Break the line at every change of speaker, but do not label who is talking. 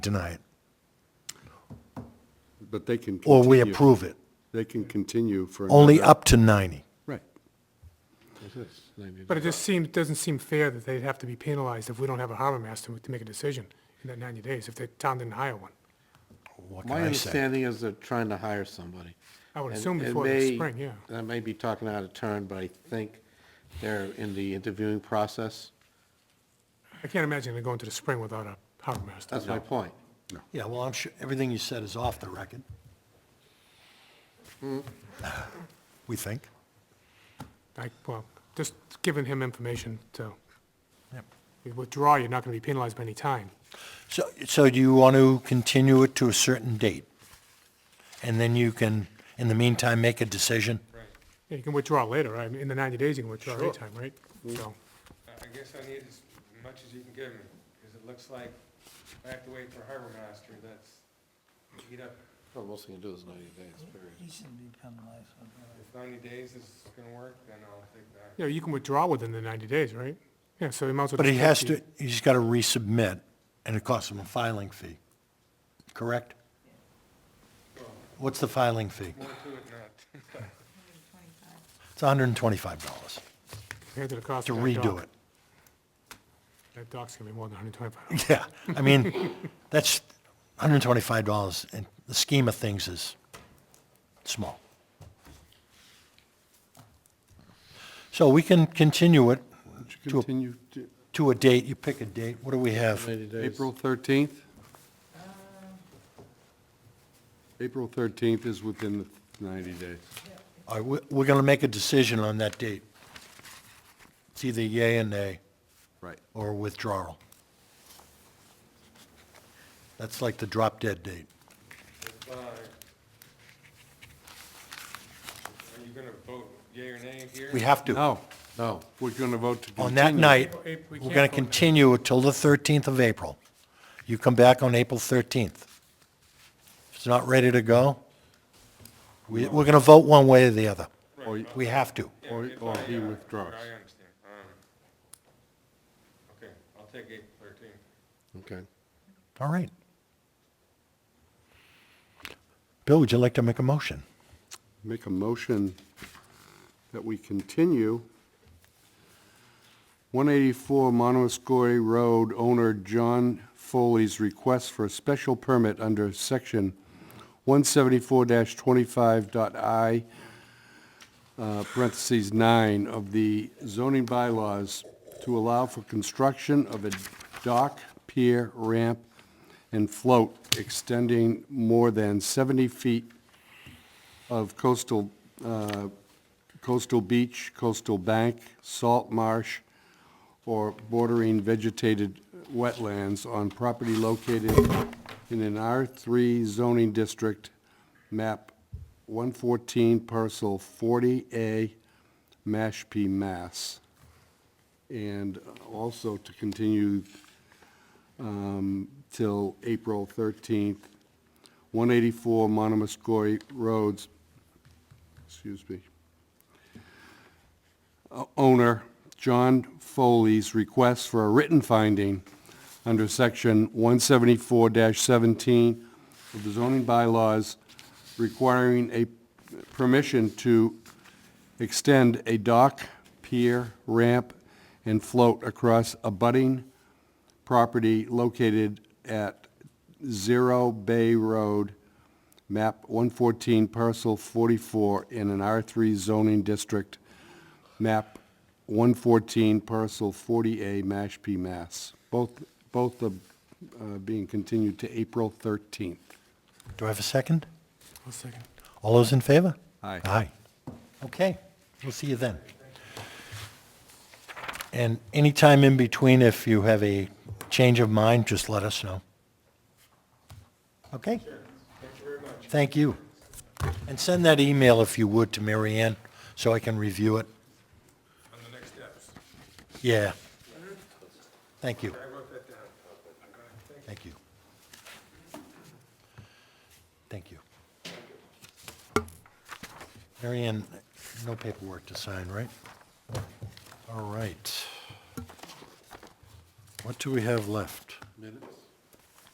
deny it,
But they can.
or we
continue-
approve it,
They can continue for.
only
another-
up to 90.
Right.
But it just seems, doesn't seem fair that they'd have to be penalized if we don't have a harbor master to make a decision in that 90 days, if the town didn't hire one.
What can
My
I say?
understanding is they're trying to hire somebody.
I would
And-
assume
and
before the
they-
spring, yeah.
and I may be talking out of turn, but I think they're in the interviewing process.
I can't imagine they're going to the spring without a harbor master.
That's my point.
Yeah, well, I'm sure, everything you said is off the record. Hmm. We think.
I, well, just giving him information to
Yep.
you withdraw, you're not going to be penalized by any time.
So, so do you want to continue it to a certain date? And then you can, in the meantime, make a decision?
Yeah, You can withdraw later, right? In the 90 days, you can withdraw anytime, right?
Mm-hmm.
So,
I I guess I need as much as you can give me, because it looks like I have to wait for Harbor Master, that's, eat up,
Well, most thing to do is 90 days, period.
if ninety days is gonna work, then I'll take that.
yeah, you can withdraw within the 90 days, right? Yeah, so he might as well.
But he
just
has
keep-
to, he's got to resubmit, and it costs him a filing fee, correct? What's the filing fee?
More to it not.
It's $125
compared to the cost
to
of that
redo
dock.
it.
That dock's going to be more than 125.
Yeah, I mean, that's $125 in the scheme of things is small. So we can continue it
To continue to
to a date, you pick a date, what do we have?
90 days.
April 13th? April 13th is within the 90 days.
All right, we- we're going to make a decision on that date. It's either yay and nay,
Right.
or withdrawal. That's like the drop dead date.
If, uh, Are you gonna vote yea or nay here?
We have to.
No, no, we're going to vote to continue.
On that night,
April eighth,
we're
we
going to
can't vote now.
continue it till the 13th of April. You come back on April 13th. If it's not ready to go, we- we're going to vote one way or the other.
Or you-
We have to.
Or
If
or
I,
he
uh,
withdraws.
I understand, um, okay, I'll take eight thirteen.
Okay.
All right. Bill, would you like to make a motion?
Make a motion that we continue 184 Monomoskoye Road owner John Foley's request for a special permit under section 174-25.i, uh, parentheses 9 of the zoning bylaws to allow for construction of a dock, pier, ramp, and float extending more than 70 feet of coastal, uh, coastal beach, coastal bank, salt marsh, or bordering vegetated wetlands on property located in an R3 zoning district, map 114, parcel 40A, Mashpee, Mass. And also to continue um, till April 13th, 184 Monomoskoye Roads, excuse me, o- owner John Foley's request for a written finding under Section 174-17 of the zoning bylaws requiring a permission to extend a dock, pier, ramp, and float across abutting property located at Zero Bay Road, map 114, parcel 44, in an R3 zoning district, map 114, parcel 40A, Mashpee, Mass. Both, both of, uh, being continued to April 13th.
Do I have a second?
One second.
All those in favor?
Aye.
Aye. Okay, we'll see you then. And anytime in between, if you have a change of mind, just let us know. Okay? Thank you very much. Thank you. And send that email, if you would, to Mary Ann, so I can review it.
On the next steps,
Yeah. Thank you.
I wrote that down. Thank you.
Thank you. Thank you. Mary Ann, no paperwork to sign, right? All right. What do we have left?